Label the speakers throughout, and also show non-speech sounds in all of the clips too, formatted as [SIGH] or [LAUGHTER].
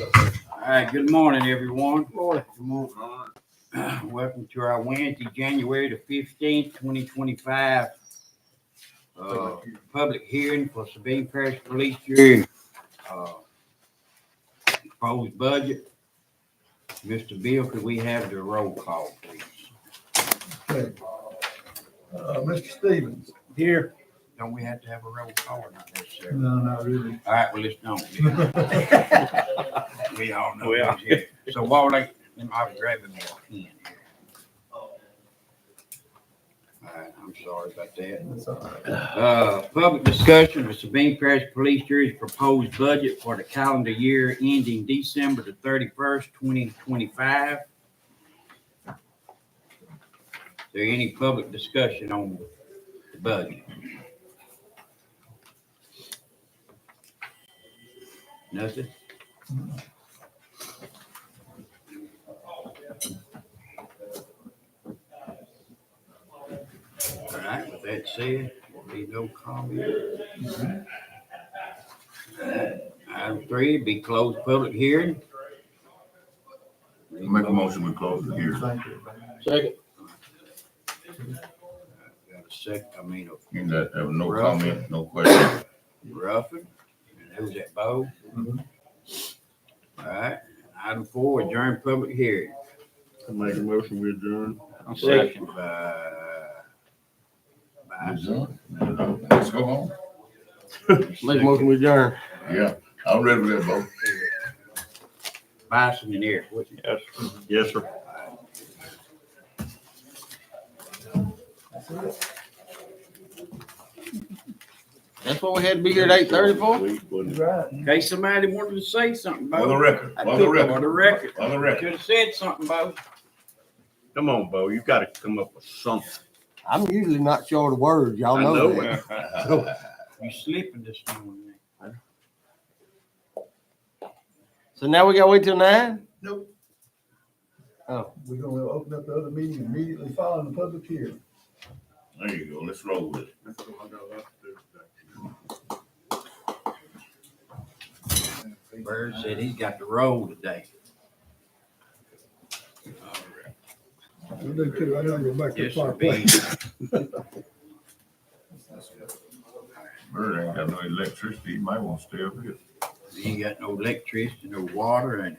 Speaker 1: All right, good morning, everyone.
Speaker 2: Morning.
Speaker 1: Good morning. [CLEARS THROAT] Welcome to our Wednesday, January the fifteenth, twenty twenty-five. Uh, public hearing for Sabine Parish Police Jury. uh, Proposed budget. Mr. Bill, could we have the roll call, please?
Speaker 2: Okay. Uh, Mr. Stevens?
Speaker 1: Here. Don't we have to have a roll call or not necessarily?
Speaker 2: No, not really. [LAUGHS]
Speaker 1: All right, well, let's don't. We all know. who's here. So while they, them, I was grabbing [LAUGHS] my pen here. All right, Uh, I'm sorry about that.
Speaker 2: That's all right.
Speaker 1: Uh, public discussion of Sabine Parish Police Jury's proposed budget for the calendar year ending December the thirty-first, twenty twenty-five. Is there any public discussion on the budget? Nothing? All right, with that said, will be no comment. Item three, be closed public hearing.
Speaker 3: Make a motion, we
Speaker 4: Oh,
Speaker 3: close the hearing.
Speaker 2: Thank you.
Speaker 5: Second.
Speaker 1: Got a sec, I mean,
Speaker 3: You got, uh, no comment, no question.
Speaker 1: Ruffin, and who's that, Bo?
Speaker 2: Mhm.
Speaker 1: All right, item four, adjourn public hearing.
Speaker 5: Make a motion, we adjourn.
Speaker 1: Second by, by,
Speaker 3: Let's go home.
Speaker 5: Make a motion, we adjourn.
Speaker 3: Yeah, I'm ready for that, Bo.
Speaker 1: Bison and Eric, what's it?
Speaker 5: Yes. Yes, sir. That's what we had to be here at eight thirty for?
Speaker 2: You're Right.
Speaker 1: In case somebody wanted to say something,
Speaker 3: On the
Speaker 1: Bo.
Speaker 3: record, on the
Speaker 1: For
Speaker 3: record,
Speaker 1: the record,
Speaker 3: on the
Speaker 1: [LAUGHS]
Speaker 3: record.
Speaker 1: could have said something, Bo.
Speaker 6: Come on, Bo, you gotta come up with something.
Speaker 5: I'm usually not short of words, y'all
Speaker 6: I
Speaker 5: know
Speaker 6: know
Speaker 5: that.
Speaker 6: it.
Speaker 1: You sleeping this morning.
Speaker 5: So now we gotta wait till nine?
Speaker 2: Nope.
Speaker 5: Oh,
Speaker 2: We're gonna open up the other meeting immediately following the public hearing.
Speaker 3: [LAUGHS] There you go, let's roll with it.
Speaker 1: Bird said he's got the roll today.
Speaker 2: We do too. I know you're back to
Speaker 1: Yes, sir,
Speaker 2: clock.
Speaker 1: be.
Speaker 3: Bird ain't got no electricity, he might want to stay up here.
Speaker 1: You ain't got no electricity, no water, and,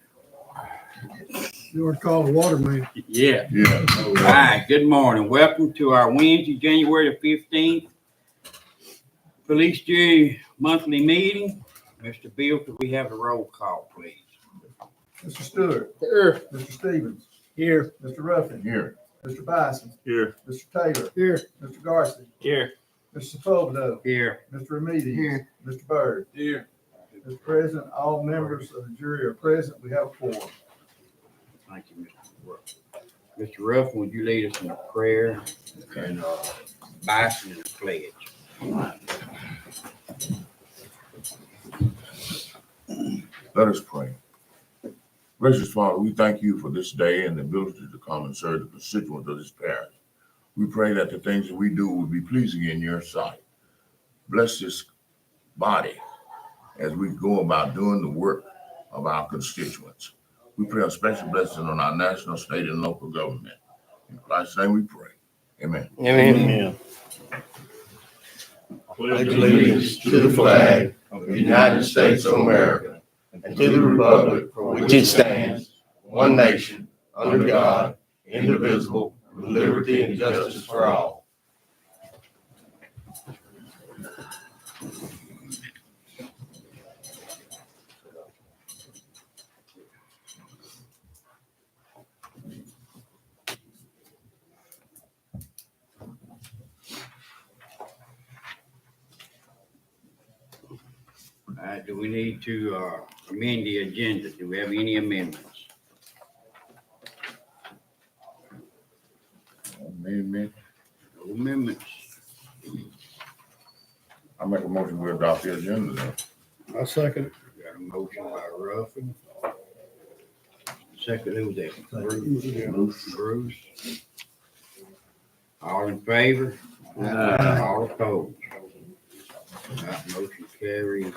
Speaker 2: You want to call the water man?
Speaker 1: yeah.
Speaker 3: Yeah. no,
Speaker 1: All
Speaker 3: uh,
Speaker 1: right, good morning. Welcome to our Wednesday, January the fifteenth, Police Jury Monthly Meeting. Mr. Bill, could we have a roll call, please?
Speaker 2: Mr. Stewart?
Speaker 5: here,
Speaker 2: Mr. Stevens?
Speaker 5: here,
Speaker 2: Mr. Ruffin?
Speaker 3: Here,
Speaker 2: Mr. Bison?
Speaker 6: Here,
Speaker 2: Mr. Taylor? Here. Mr. Garson?
Speaker 6: here,
Speaker 2: Mr. Fulvio?
Speaker 1: Here.
Speaker 2: Mr. Remedy?
Speaker 5: Here.
Speaker 2: Mr. Byrd?
Speaker 1: Here.
Speaker 2: Mr. President, all members of the jury are present. We have four.
Speaker 1: Thank you, Mr. Ruff. Mr. Ruffin, would you lead us in a prayer and, uh, Bison in a pledge?
Speaker 3: let us pray. Gracious Father, we thank you for this day and the ability to come and serve the constituents of this parish. We pray that the things that we do will be pleasing in your sight. Bless this body as we go about doing the work of our constituents. We pray a special blessing on our national, state, and local government. In Christ's name we pray. Amen.
Speaker 5: I mean,
Speaker 6: yeah.
Speaker 4: pledge allegiance to the flag of the United States of America and to the republic for which it stands, one nation, under God, indivisible, with liberty and justice for all.
Speaker 1: All right, do we need to, uh, amend the agenda? Do we have any amendments?
Speaker 3: Amen.
Speaker 1: No amendments.
Speaker 3: I make a motion we adopt the agenda. then.
Speaker 2: I second
Speaker 1: Got a motion by Ruffin. Second, who was that? Bruce?
Speaker 2: it.
Speaker 1: Bruce. All in favor?
Speaker 6: Aye.
Speaker 1: All opposed? That motion carries